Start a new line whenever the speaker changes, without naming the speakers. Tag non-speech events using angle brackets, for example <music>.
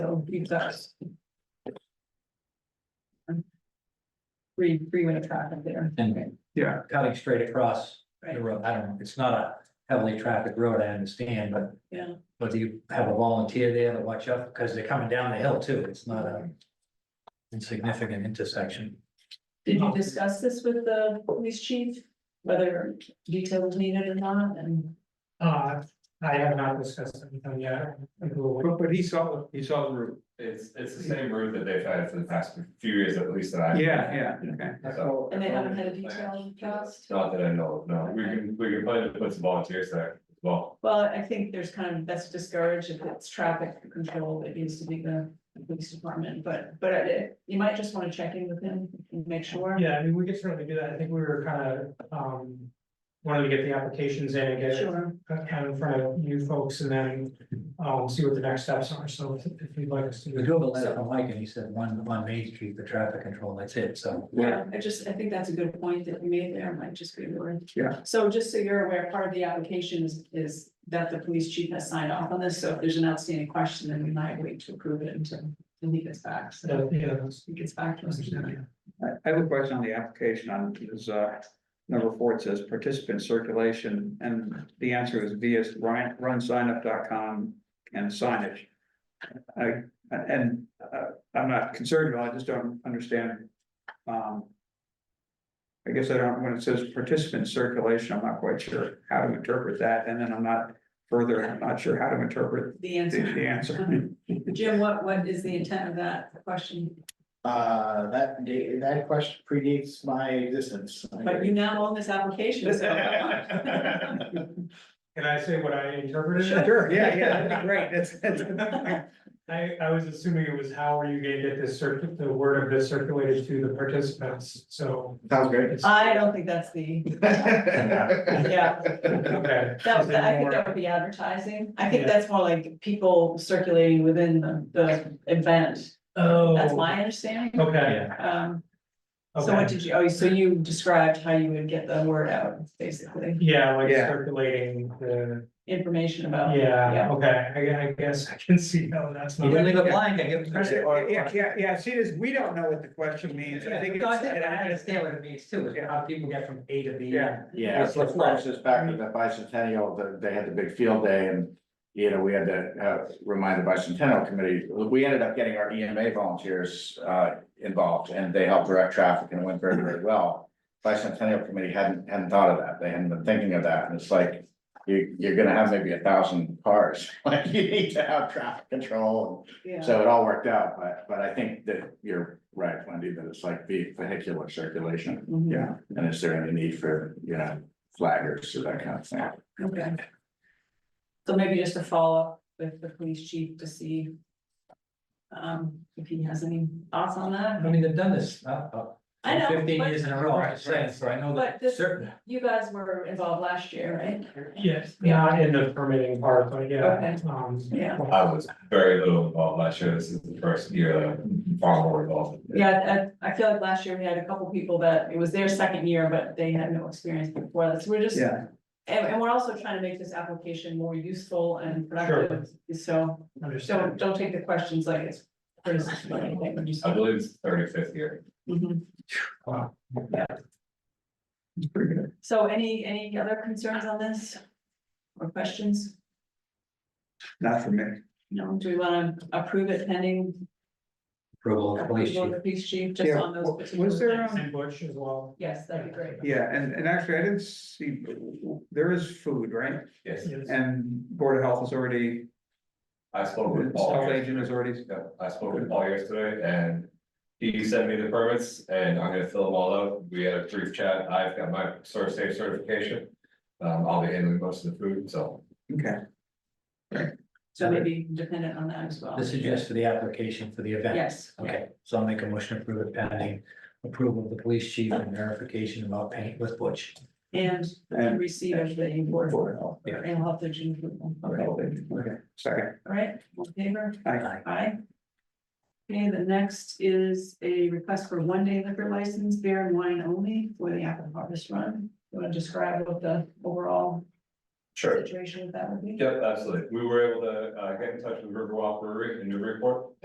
use those. Three, three way traffic there.
And
Yeah,
cutting straight across the
Right.
road, I don't, it's not a heavily trafficked road, I understand, but.
Yeah.
But you have a volunteer there to watch out, because they're coming down the hill too, it's not a insignificant intersection.
Did you discuss this with the police chief, whether details needed or not, and
Uh, I have not discussed anything yet. I will-
but, but he saw, he saw the route.
It's, it's the same route that they've had for the past few years at least that I.
Yeah, yeah, okay.
So-
and they haven't had a detailed cast?
Not that I know, of, no, we can, we can probably put some volunteers there as well.
Well, I think there's kind of, that's discouraged if it's traffic control, it needs to be the the police department, but, but I- you might just wanna check in with him and make sure.
Yeah, I mean, we could certainly do that. I think we were kind of, um, wanted to get the applications in and get it
Sure,
kind of in front of you folks and then, um, see what the next steps are. So if- if you'd like us to.
We drove a letter from Mike and he said one, one Main Street for traffic control, that's it, so.
yeah, Um, I just, I think that's a good point that you made there, might just be worth.
Yeah.
So just so you're aware, part of the application is, is that the police chief has signed off on this, so if there's an outstanding question, then we might wait to approve it until, until he gets back, so.
So, yeah, that's-
He gets back to us.
I, I have a question on the application on, is, uh, number four, it says participant circulation, and the answer is via Ryan, runsignup.com and signage. I, and, uh, I'm not concerned, at all, I just don't understand, um. I guess I don't, when it says participant circulation, I'm not quite sure how to interpret that, and then I'm not further, I'm not sure how to interpret
The
the, the
answer,
answer.
Jim, what, what is the intent of that question?
Uh, that date, that question predates
<laughs>
my existence.
But you now own this application, so.
Can I say what I interpreted?
<laughs>
it?
Sure, yeah, yeah, that'd be great, that's, <laughs> that's.
I, I was assuming it was how are you gonna get this circuit, the word of this circulated to the participants, so.
Sounds great.
it's-
I don't think that's the, yeah,
Okay.
that,
Is there
I think
more-
that would be advertising. I think
Yeah.
that's more like people circulating within the, the event.
Oh.
That's my understanding.
Okay,
Um, so what
okay.
did you, oh, so you described how you would get the word out, basically,
Yeah, like
Yeah.
circulating the,
information about.
yeah, okay, I, gue- I guess I can see how that's
You
not.
didn't leave it blank, I give it.
Yeah, Yeah, yeah, yeah, see, this, we don't know what the question means, I think.
No, I
it's-
think I understand what it means too, is how people get from A to B.
Yeah.
Yeah, it's like, for instance, back to the bicentennial, the- they had the big field day and, you know, we had to, uh, remind the bicentennial committee, we ended up getting our EMA volunteers, uh, involved and they helped direct traffic and it went very, very well. Bicentennial committee hadn't, hadn't thought of that. They hadn't been thinking of that. And it's like, you, you're gonna have maybe a thousand cars. <laughs> Like you need to have traffic control.
Yeah.
So it all worked out, but, but I think that you're right, Wendy, that it's like the vehicular circulation.
Mhm.
Yeah, and is there any need for, you know, flaggers or that kind of thing?
Okay. So maybe just a follow-up with the police chief to see. Um, if he has any thoughts on that.
I mean, they've done this, uh, uh,
I know,
fifteen
but-
years in a row, I'm just saying, so I know
But
that
this-
certain.
You guys were involved last year, right?
Yes, not in the permitting part, but yeah,
Okay.
um,
Yeah,
I was very little involved last year, this is the first year that I'm far more involved.
yeah, I, I feel like last year we had a couple people that, it was their second year, but they had no experience before that, so we're just.
Yeah.
And, and we're also trying to make this application more useful and productive, so, so
understood.
don't take the questions like it's criticism or anything, but just.
I believe it's thirty fifth year.
Mhm.
Wow.
Yeah. So any, any other concerns on this? Or questions?
Not for me.
No, do we wanna approve it pending?
Approval of police
approval of
chief.
the Police chief, just
Yeah,
on those.
wa-
particular
was there,
things?
um,
And Bush as well.
Yes, that'd be great.
Yeah, and, and actually, I didn't see, there is food, right?
Yes,
Yes.
And Board of Health is already,
I
Oh,
spoke with Paul.
Health Agent is already,
Yeah, I spoke with Paul yesterday and he sent me the permits and I'm gonna fill them all out. We had a brief chat. I've got my source safe certification. Um, I'll be handling most of the food, so
okay,
So maybe dependent on that as well.
This is just for the application for the event.
Yes.
Okay, so I'll make a motion to approve it pending approval of the police chief and verification about paint with Butch.
And
And-
receive of the board
Board of Health,
Yeah.
and health agent approval.
Board of
Okay, all
Health Agent, okay, second,
right, all in favor?
I,
Aye. Okay, the next is a request for one day liquor license, beer and wine only for the apple harvest run. You wanna describe what the overall
sure.
situation with that would be?
Yep, absolutely. We were able to uh get in touch with Riverwalk Brewery in Newburyport